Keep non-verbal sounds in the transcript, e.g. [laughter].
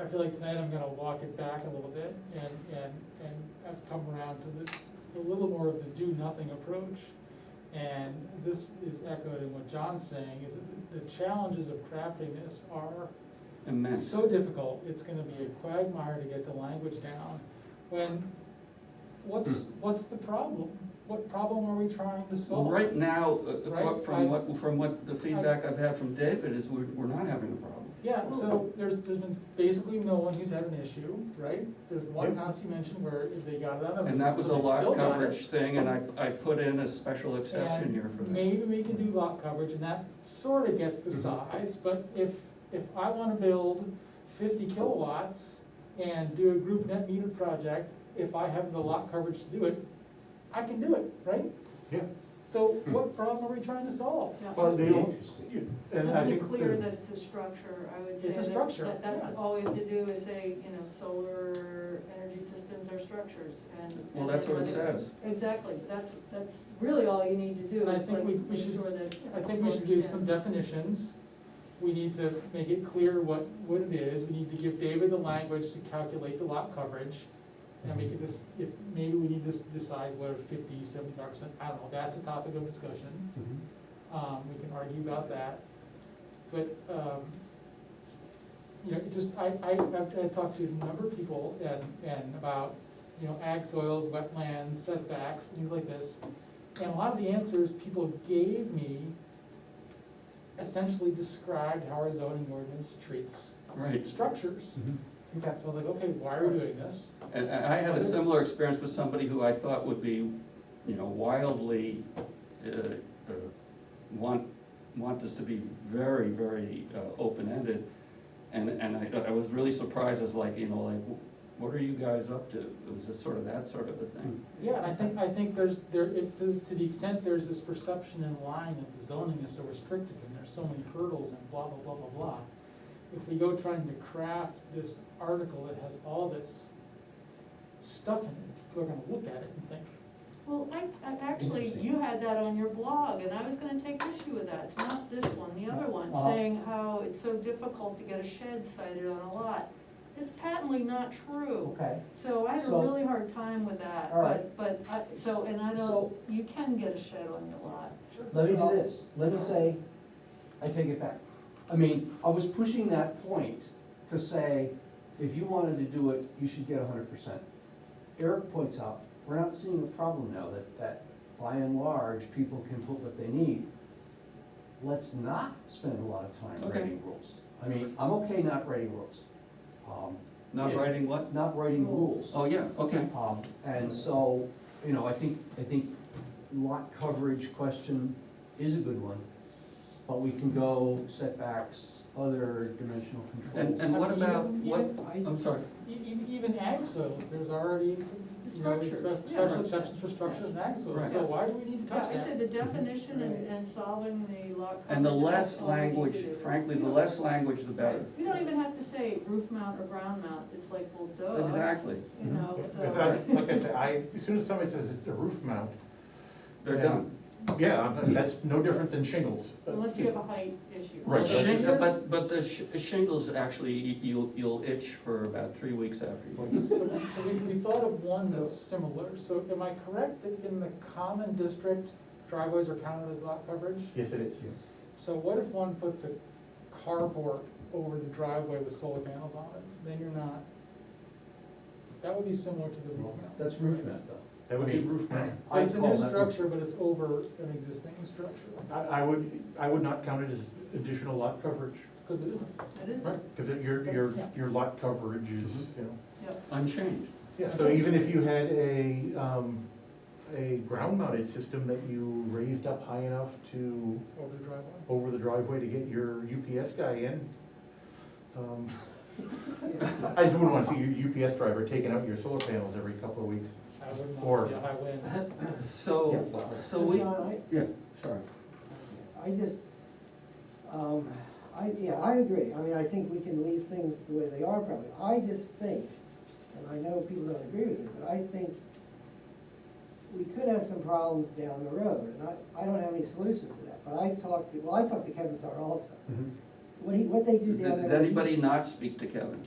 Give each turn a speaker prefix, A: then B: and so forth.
A: I feel like tonight I'm gonna walk it back a little bit and, and, and I've come around to the, a little more of the do-nothing approach. And this is echoed in what John's saying, is that the- the challenges of crafting this are
B: immense.
A: so difficult, it's gonna be a quagmire to get the language down. When, what's, what's the problem? What problem are we trying to
B: Well,
A: solve?
B: right now, uh, uh,
A: Right,
B: what-
A: I-
B: from what, from what the feedback I've had from David is we're, we're not having a problem.
A: Yeah, so there's, there's been basically no one who's had an issue, right? There's the one house you mentioned where they got it out of.
B: And that was a
A: so they still
B: lot
A: got it.
B: coverage thing, and I, I put in a special exception here for
A: And
B: that.
A: Maybe we can do lot coverage, and that sort of gets the
B: Mm-hmm.
A: size, but if, if I wanna build fifty kilowatts and do a group net meter project, if I have the lot coverage to do it, I can do it, right?
C: Yeah,
A: So
B: Hmm.
A: what problem are we trying to solve?
D: Yeah.
C: well, they all,
B: Interesting.
C: you- and I
D: Just be
C: think.
D: clear
C: the-
D: that it's a structure, I would say.
A: It's a
D: that-
A: structure,
D: that- That's
A: yeah.
D: all we have to do is say, you know, solar energy systems are structures and.
B: Well, that's what it says.
D: Exactly, that's, that's really all you need to do
A: And I
D: is
A: think
D: like
A: we- we
D: make
A: should-
D: sure that.
A: I think we should do some
D: Yeah.
A: definitions. We need to make it clear what, what it is. We need to give David the language to calculate the lot coverage. And we could just, if, maybe we need to s- decide whether fifty, seventy-five percent, I don't know, that's a topic of discussion.
C: Mhm.
E: Mm-hmm.
A: Um, we can argue about that. But, um, you know, it just, I, I, I've I've talked to a number of people and, and about, you know, ag soils, wetlands, setbacks, things like this. And a lot of the answers people gave me essentially described how our zoning ordinance treats
B: Right,
A: structures.
E: Mm-hmm.
C: Mhm.
A: Okay, so I was like, okay, why are we doing this?
B: and, and I had a similar experience with somebody who I thought would be, you know, wildly, uh, uh, want, want this to be very, very, uh, open-ended. And, and I, I was really surprised, as like, you know, like, what are you guys up to? It was just sort of that sort of a thing.
A: Yeah, and I think, I think there's, there, if, to, to the extent there's this perception in line that the zoning is so restrictive and there's so many hurdles and blah, blah, blah, blah, blah. If we go trying to craft this article that has all this stuff in it, people are gonna look at it and think,
D: Well, I, I, actually, you had that on your blog, and I was gonna take issue with that, it's not this one, the other one,
B: Uh-huh.
D: saying how it's so difficult to get a shed sited on a lot. It's patently not true.
E: Okay,
D: So I had a
E: So-
D: really hard time with that,
E: All right.
D: but, but, I- so, and I don't,
E: So-
D: you can get a shed on your lot.
E: let me do this, let me say, I take it back. I mean, I was pushing that point to say, if you wanted to do it, you should get hundred percent. Eric points out, we're not seeing a problem now that, that by and large, people can put what they need. Let's not spend a lot of time
B: Okay.
E: writing rules. I mean, I'm okay not writing rules, um,
B: Not
A: Yeah.
B: writing what?
E: not writing rules.
B: Oh, yeah, okay.
E: Um, and so, you know, I think, I think lot coverage question is a good one, but we can go setbacks, other dimensional
A: [laughs]
B: And,
E: controls.
B: and what
A: I mean,
B: about,
A: even-
B: what,
A: even-
B: I'm sorry,
A: E- e- even ag soils, there's already, you know,
D: Structures,
A: spe-
D: yeah.
A: special exceptions for structures and ag soils,
B: Right.
A: so why do we need to
D: Yeah,
A: touch
D: I
A: that?
D: said the definition and, and solving the lot.
B: Mhm. and the
D: coverage,
B: less
D: that's all we need to
B: language,
D: do.
B: frankly,
D: You
B: the
D: know,
B: less language, the better.
D: We don't even have to say roof mount or ground mount, it's like, well, duh.
B: Exactly,
D: You know,
C: Because
D: so,
C: I, like I said, I, as soon as somebody says it's a roof mount,
B: they're done.
C: yeah, I'm- that's no different than shingles.
D: unless you have a height issue.
C: Right.
B: Shing- But, but the sh- shingles actually, y- you'll, you'll itch for about three weeks after. you-
A: So, so we, we thought of one that's similar, so am I correct that in the common district, driveways are counted as lot coverage?
C: Yes, it is.
A: So what if one puts a carport over the driveway with solar panels on it, then you're not, that would be similar to the roof mount.
E: That's roof mount though.
C: That would be roof mount.
E: I
A: It's a
E: call
A: new
E: that-
A: structure, but it's over an existing structure,
C: I, I would, I would not count it as additional lot coverage.
A: because it isn't.
D: It isn't,
C: Because your, your, your lot coverage is,
B: Mm-hmm.
C: you know.
D: yep.
B: Unchanged.
C: Yeah, so even if you had a, um, a ground mounted system that you raised up high enough to,
A: Over the driveway.
C: over the driveway to get your UPS guy in, um, I just wouldn't wanna see your UPS driver taking out your solar panels every couple of weeks.
A: I wouldn't
C: Or-
A: want to see a high wind.
B: So,
C: Yeah.
B: so we,
F: John,
B: yeah, sorry.
F: uh, I, I just, um, I, yeah, I agree, I mean, I think we can leave things the way they are probably, I just think, and I know people don't agree with me, but I think we could have some problems down the road, and I, I don't have any solutions to that, but I've talked to, well, I talked to Kevin Tsar also. What he, what they do down there.
B: Did anybody not speak to Kevin?